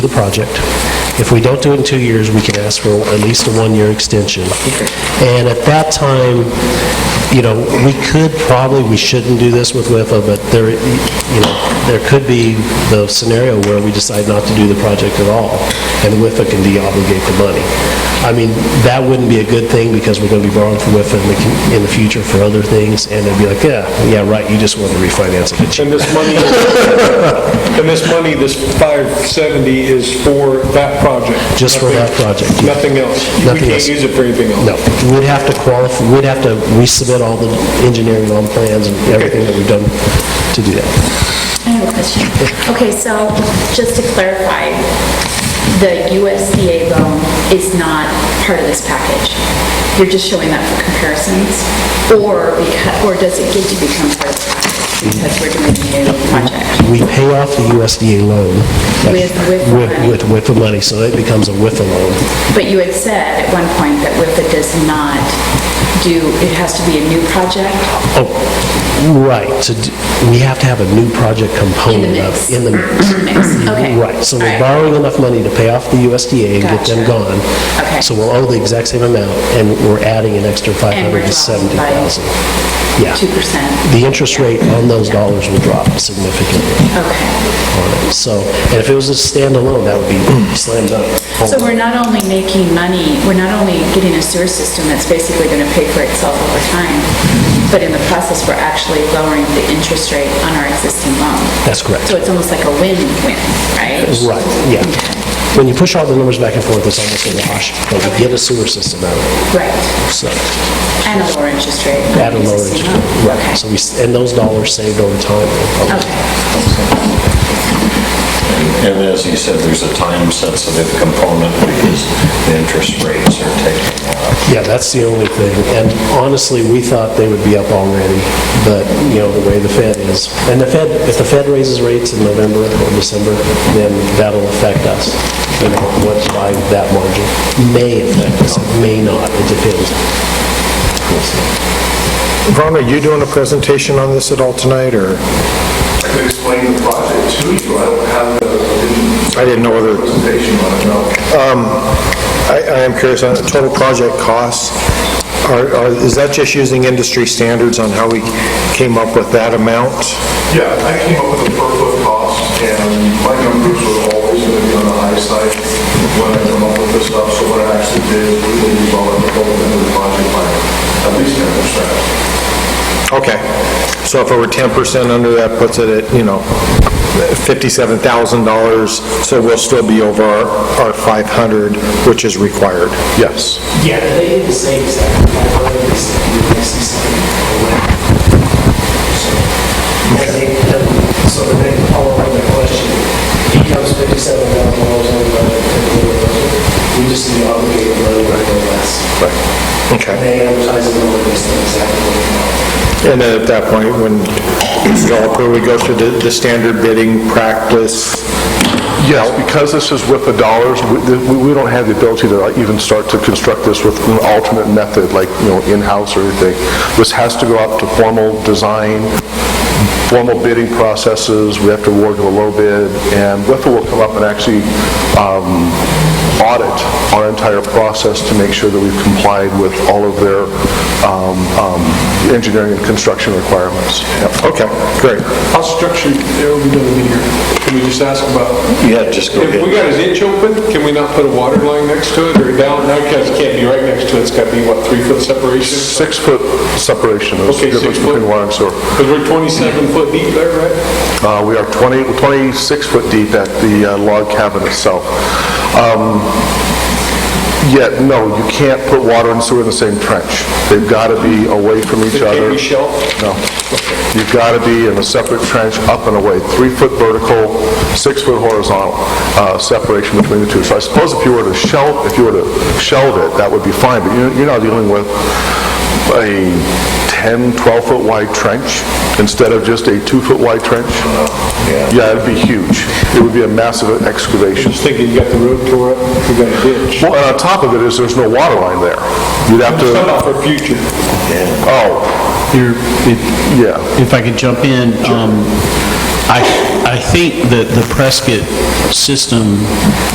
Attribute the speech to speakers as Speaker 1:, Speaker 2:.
Speaker 1: the project. If we don't do it in two years, we can ask for at least a one-year extension. And at that time, you know, we could probably, we shouldn't do this with WIPA, but there, you know, there could be the scenario where we decide not to do the project at all, and WIPA can de-obligate the money. I mean, that wouldn't be a good thing, because we're going to be borrowing from WIPA in the, in the future for other things, and it'd be like, yeah, yeah, right, you just wanted to refinance it.
Speaker 2: And this money, and this money, this 570 is for that project?
Speaker 1: Just for that project, yeah.
Speaker 2: Nothing else? We
Speaker 1: Nothing
Speaker 2: can't
Speaker 1: else.
Speaker 2: use it for anything else?
Speaker 1: No, we'd have to qualify, we'd have to resubmit all the engineering, all the plans and everything that we've done to do that.
Speaker 3: I have a question. Okay, so just to clarify, the USDA loan is not part of this package. You're just showing that for comparisons? Or because, or does it get to become part of the package because we're doing a new project?
Speaker 1: We pay off the USDA loan.
Speaker 3: With WIFA money.
Speaker 1: With, with WIFA money, so it becomes a WIFA loan.
Speaker 3: But you had said at one point that WIPA does not do, it has to be a new project?
Speaker 1: Oh, right, to, d- we have to have a new project component of.
Speaker 3: mix.
Speaker 1: In the
Speaker 3: Mix, okay.
Speaker 1: Right, so we're
Speaker 3: Alright.
Speaker 1: borrowing enough money to pay off the USDA and get them
Speaker 3: Gotcha.
Speaker 1: gone.
Speaker 3: Okay.
Speaker 1: So we'll owe the exact same amount, and we're adding an extra
Speaker 3: And we're dropping
Speaker 1: 570,000.
Speaker 3: by
Speaker 1: Yeah.
Speaker 3: 2%?
Speaker 1: the interest rate on those dollars will drop significantly
Speaker 3: Okay.
Speaker 1: on it. So, and if it was a standalone, that would be slam dunk.
Speaker 3: So we're not only making money, we're not only getting a sewer system that's basically going to pay for itself over time, but in the process, we're actually lowering the interest rate on our existing loan.
Speaker 1: That's correct.
Speaker 3: So it's almost like a win-win, right?
Speaker 1: Right, yeah. When you push all the numbers back and forth, it's almost a wash, but we get a sewer system out of
Speaker 3: Right,
Speaker 1: it, so,
Speaker 3: and a lower interest rate. on
Speaker 1: at a
Speaker 3: the
Speaker 1: lower
Speaker 3: existing
Speaker 1: interest
Speaker 3: loan.
Speaker 1: rate. Right, so we, s- and those dollars saved over time. will-
Speaker 3: Okay,
Speaker 4: And as you said, there's a time-sensitive component because the interest rates are taking off.
Speaker 1: Yeah, that's the only thing. And honestly, we thought they would be up already, but, you know, the way the Fed is. And the Fed, if the Fed raises rates in November or December, then that'll affect us, you know, what by that margin. May affect us, may not, it depends.
Speaker 5: Ron, are you doing a presentation on this at all tonight, or?
Speaker 6: I could explain the project to you, I don't have the...
Speaker 5: I didn't know whether- Oh.
Speaker 6: Presentation on it, no.
Speaker 5: I, I am curious on the total project costs. Are, are- is that just using industry standards on how we came up with that amount?
Speaker 6: Yeah, I came up with a per foot cost, and my numbers were always going to be on the high side when I come up with this stuff, so what I actually did, is we didn't use all of the total into the project by at least 10%.
Speaker 5: Okay, so if it were 10% under that, puts it at, you know, $57,000, so we'll still be over our our 500, which is required. Yes.
Speaker 7: Yeah, they did the same exact, I thought it was, you know, something or whatever. So, and they, and so the next, all of the question, if he comes fifty-seven thousand dollars on the budget, then we will- we just need to obligate the money right or less.
Speaker 5: Right, okay.
Speaker 7: And they advertise it on the list of exactly what they want.
Speaker 5: And then at that point, when it's all approved, we go through the, the standard bidding practice.
Speaker 8: Yes, because this is with the dollars, we- we we don't have the ability to even start to construct this with an alternate method, like, you know, in-house or anything. This has to go out to formal design, formal bidding processes, we have to award to a low bid, and WIFA will come up and actually um, audit our entire process to make sure that we've complied with all of their um, um, engineering and construction requirements. Yep.
Speaker 5: Okay, great.
Speaker 2: How structured are we going to be here? Can we just ask about,
Speaker 4: Yeah, just go
Speaker 2: if we got
Speaker 4: ahead.
Speaker 2: his inch open, can we not put a water line next to it or down? No, because it can't be right next to it, it's got to be, what, three-foot separation?
Speaker 8: Six-foot separation is the
Speaker 2: Okay,
Speaker 8: difference
Speaker 2: six-foot.
Speaker 8: between water and sewer.
Speaker 2: Because we're 27 foot deep there, right?
Speaker 8: Uh, We are 20 26-foot deep at the uh, log cabin itself. Um, Yet, no, you can't put water and sewer in the same trench. They've got to be away from each
Speaker 2: It
Speaker 8: other.
Speaker 2: can't be shelved?
Speaker 8: No. You've got to be in a separate trench, up and away, three-foot vertical, six-foot horizontal uh, separation between the two. So I suppose if you were to shelve, if you were to shelve it, that would be fine, but you're you're now dealing with a 10, 12-foot wide trench instead of just a two-foot wide trench? Yeah, it'd be huge. It would be a massive excavation.
Speaker 2: Just thinking, you got the road tore up, we got a ditch.
Speaker 8: Well, and on top of it is there's no water line there. You'd have
Speaker 2: Talk
Speaker 8: to,
Speaker 2: about for future.
Speaker 8: oh,
Speaker 9: Here, if-
Speaker 8: yeah.
Speaker 9: if I could jump in, um,
Speaker 1: I, I think that the Prescott system